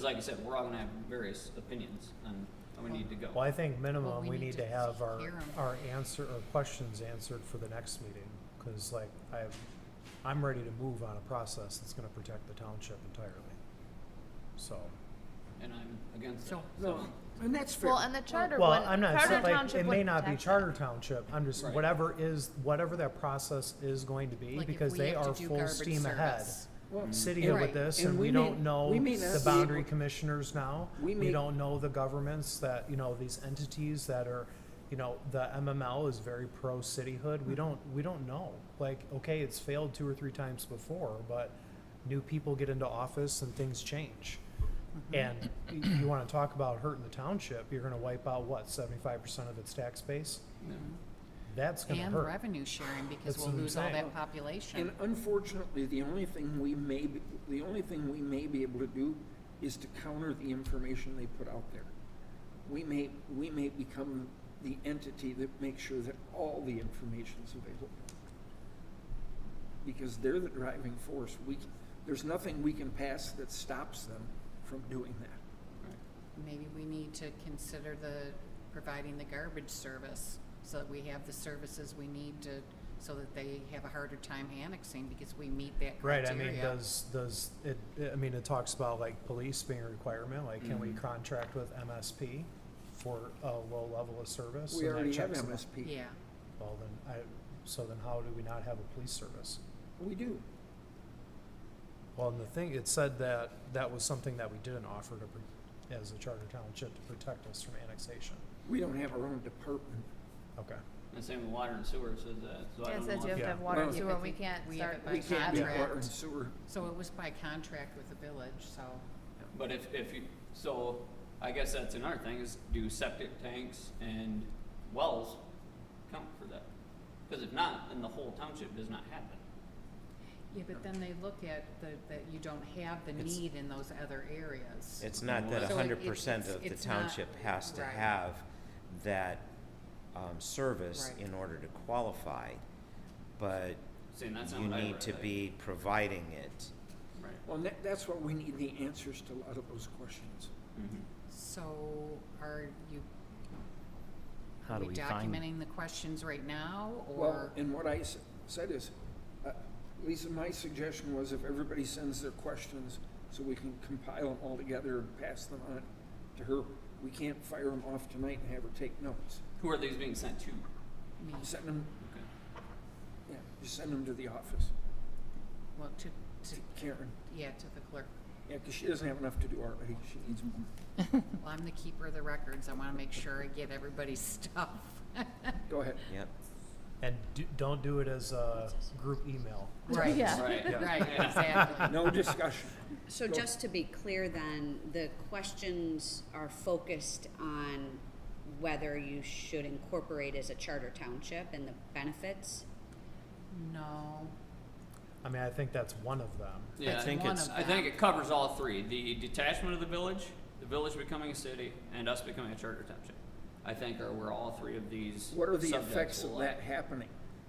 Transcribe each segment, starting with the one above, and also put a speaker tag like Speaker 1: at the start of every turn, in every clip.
Speaker 1: like I said, we're all gonna have various opinions on how we need to go.
Speaker 2: Well, I think
Speaker 3: Well,
Speaker 2: minimum,
Speaker 3: we
Speaker 2: we
Speaker 3: need
Speaker 2: need
Speaker 3: to
Speaker 2: to have our,
Speaker 3: hear 'em.
Speaker 2: our answer, or questions answered for the next meeting. Cause like, I, I'm ready to move on a process that's gonna protect the township entirely. So,
Speaker 1: And I'm against that.
Speaker 3: So-
Speaker 4: No, and that's fair.
Speaker 5: Well, and the charter
Speaker 2: well,
Speaker 5: one,
Speaker 2: I'm not,
Speaker 5: charter
Speaker 2: saying, like,
Speaker 5: township
Speaker 2: it may
Speaker 5: would
Speaker 2: not be
Speaker 5: protect
Speaker 2: charter
Speaker 5: them.
Speaker 2: township, I'm just,
Speaker 1: Right.
Speaker 2: whatever is, whatever that process is going to be,
Speaker 3: Like if
Speaker 2: because
Speaker 3: we
Speaker 2: they
Speaker 3: have to
Speaker 2: are
Speaker 3: do
Speaker 2: full
Speaker 3: garbage
Speaker 2: steam ahead.
Speaker 3: service.
Speaker 4: Well,
Speaker 2: City
Speaker 4: and-
Speaker 2: with this,
Speaker 4: and
Speaker 2: and
Speaker 4: we
Speaker 2: we
Speaker 4: may-
Speaker 2: don't know
Speaker 4: we may not
Speaker 2: the
Speaker 4: be
Speaker 2: boundary
Speaker 4: able-
Speaker 2: commissioners now.
Speaker 4: We
Speaker 2: We
Speaker 4: may-
Speaker 2: don't know the governments that, you know, these entities that are, you know, the MML is very pro-cityhood. We don't, we don't know. Like, okay, it's failed two or three times before, but new people get into office and things change.
Speaker 4: Mm-hmm.
Speaker 2: And y- you wanna talk about hurting the township, you're gonna wipe out what, seventy-five percent of its tax base?
Speaker 1: Yeah.
Speaker 2: That's gonna
Speaker 3: And
Speaker 2: hurt.
Speaker 3: revenue sharing, because
Speaker 2: That's
Speaker 3: we'll
Speaker 2: what I'm
Speaker 3: lose all
Speaker 2: saying.
Speaker 3: that population.
Speaker 4: And unfortunately, the only thing we may, be- the only thing we may be able to do is to counter the information they put out there. We may, we may become the entity that makes sure that all the information's available. Because they're the driving force. We, c- there's nothing we can pass that stops them from doing that.
Speaker 3: Maybe we need to consider the, providing the garbage service, so that we have the services we need to, so that they have a harder time annexing, because we meet that
Speaker 2: Right,
Speaker 3: criteria.
Speaker 2: I mean, does, does, it, I mean, it talks about like police being a requirement, like can we
Speaker 4: Mm-hmm.
Speaker 1: Mhm.
Speaker 2: contract with MSP for a low level of service?
Speaker 4: We
Speaker 2: And that
Speaker 4: already have
Speaker 2: checks the-
Speaker 4: MSP.
Speaker 3: Yeah,
Speaker 2: Well, then, I, so then how do we not have a police service?
Speaker 4: We do.
Speaker 2: Well, and the thing, it said that that was something that we didn't offer to, pr- as a charter township to protect us from annexation.
Speaker 4: We don't have our own department.
Speaker 2: Okay,
Speaker 1: And same with water and sewer says that, so I
Speaker 5: Yeah, it
Speaker 1: don't
Speaker 5: says you
Speaker 1: know.
Speaker 5: have
Speaker 1: if-
Speaker 5: to
Speaker 2: Yeah.
Speaker 5: have water and
Speaker 4: Well,
Speaker 5: sewer,
Speaker 3: if
Speaker 5: and we
Speaker 3: it-
Speaker 5: can't
Speaker 3: we have
Speaker 5: start
Speaker 3: it by
Speaker 4: We
Speaker 5: by
Speaker 4: can't do water and
Speaker 3: contract.
Speaker 4: sewer.
Speaker 3: so it was by contract with the village, so,
Speaker 1: But if, if you, so I guess that's another thing is do septic tanks and wells count for that? Cause if not, then the whole township does not happen.
Speaker 3: yeah, but then they look at the, that you don't have the
Speaker 6: It's-
Speaker 3: need in those other areas.
Speaker 6: It's not that
Speaker 1: So
Speaker 3: it-
Speaker 6: hundred
Speaker 3: it's-
Speaker 6: percent of the
Speaker 3: it's not-
Speaker 6: township has to
Speaker 3: right.
Speaker 6: have that, um, service
Speaker 3: Right.
Speaker 6: in order to qualify, but
Speaker 1: Saying that's not
Speaker 6: you
Speaker 1: what I
Speaker 6: need
Speaker 1: read,
Speaker 6: to
Speaker 1: I-
Speaker 6: be providing it.
Speaker 1: Right.
Speaker 4: Well, that, that's what we need the answers to a lot of those questions.
Speaker 1: Mhm.
Speaker 3: So are you,
Speaker 7: How
Speaker 3: are
Speaker 7: do
Speaker 3: we
Speaker 7: we find-
Speaker 3: documenting the questions right now,
Speaker 4: Well,
Speaker 3: or?
Speaker 4: and what I s- said is, uh, Lisa, my suggestion was if everybody sends their questions, so we can compile them all together and pass them on to her. We can't fire them off tonight and have her take notes.
Speaker 1: Who are these being sent to?
Speaker 3: Me,
Speaker 8: Mm-hmm.
Speaker 4: Send them,
Speaker 1: Okay.
Speaker 4: yeah, just send them to the office,
Speaker 3: well, to,
Speaker 4: to
Speaker 3: to,
Speaker 4: Karen.
Speaker 3: yeah, to the clerk.
Speaker 4: Yeah, because she doesn't have enough to do already, she needs more.
Speaker 3: Well, I'm the keeper of the records, I wanna make sure I get everybody's stuff.
Speaker 4: Go ahead.
Speaker 6: Yep.
Speaker 2: and do, don't do it as a group email.
Speaker 3: Right,
Speaker 5: Yeah.
Speaker 1: Right.
Speaker 3: right,
Speaker 1: Yeah.
Speaker 3: exactly.
Speaker 4: No discussion.
Speaker 8: So
Speaker 4: Go.
Speaker 8: just to be clear then, the questions are focused on whether you should incorporate as a charter township and the benefits?
Speaker 3: No,
Speaker 2: I mean, I think that's one of them.
Speaker 1: Yeah,
Speaker 6: I think
Speaker 3: one
Speaker 6: it's,
Speaker 3: of
Speaker 1: I think it covers all three, the detachment of the village, the village becoming a city, and us becoming a charter township. I think are where all three of these
Speaker 4: What are the
Speaker 1: subjects
Speaker 4: effects of
Speaker 1: will lie.
Speaker 4: that happening?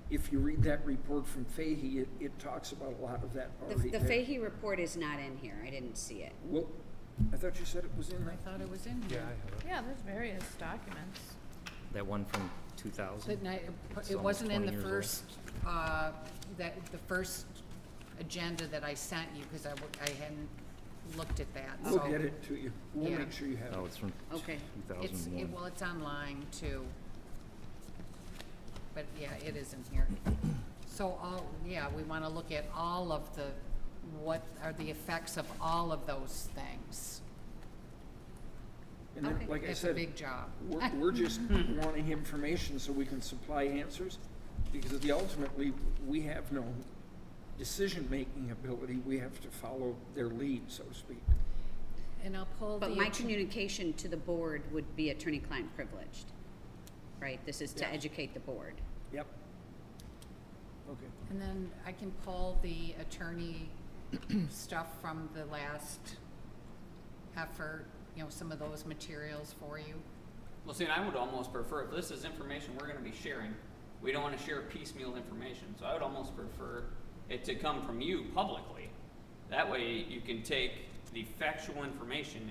Speaker 4: If you read that report from Fahey, it, it talks about a lot of that
Speaker 8: The,
Speaker 4: already
Speaker 8: the
Speaker 4: there.
Speaker 8: Fahey report is not in here, I didn't see it.
Speaker 4: Well, I thought you said it was in
Speaker 3: I
Speaker 4: there.
Speaker 3: thought it was in
Speaker 2: Yeah,
Speaker 3: here.
Speaker 2: I have it.
Speaker 5: Yeah, there's various documents.
Speaker 7: That one from two thousand?
Speaker 3: But ni-
Speaker 7: It's
Speaker 3: it
Speaker 7: almost
Speaker 3: wasn't in
Speaker 7: 20
Speaker 3: the
Speaker 7: years old.
Speaker 3: first, uh, that, the first agenda that I sent you, because I, w- I hadn't looked at that, so.
Speaker 4: We'll get it to you. We'll
Speaker 3: Oh. Yeah.
Speaker 4: make sure you have
Speaker 7: No,
Speaker 4: it.
Speaker 7: it's from
Speaker 3: Oh,
Speaker 7: two
Speaker 8: Okay.
Speaker 3: It's,
Speaker 7: thousand
Speaker 3: it,
Speaker 7: and
Speaker 3: well,
Speaker 7: one.
Speaker 3: it's online too. But yeah, it is in here. So all, yeah, we wanna look at all of the, what are the effects of all of those things?
Speaker 4: And then,
Speaker 8: Okay.
Speaker 4: like I
Speaker 3: It's a
Speaker 4: said,
Speaker 3: big Hmm. job.
Speaker 4: we're, we're just wanting information so we can supply answers because the ultimately, we have no decision-making ability. We have to follow their lead, so to speak.
Speaker 3: And I'll pull the.
Speaker 8: But my
Speaker 3: ag-
Speaker 8: communication to the board would be attorney-client privileged, right? This is to
Speaker 4: Yes.
Speaker 8: educate the board.
Speaker 4: Yep. Okay.
Speaker 3: And then I can pull the attorney stuff from the last effort, you know, some of those materials for you.
Speaker 1: Well, see, and I would almost prefer, if this is information we're gonna be sharing, we don't wanna share piecemeal information, so I would almost prefer it to come from you publicly. That way, you can take the factual information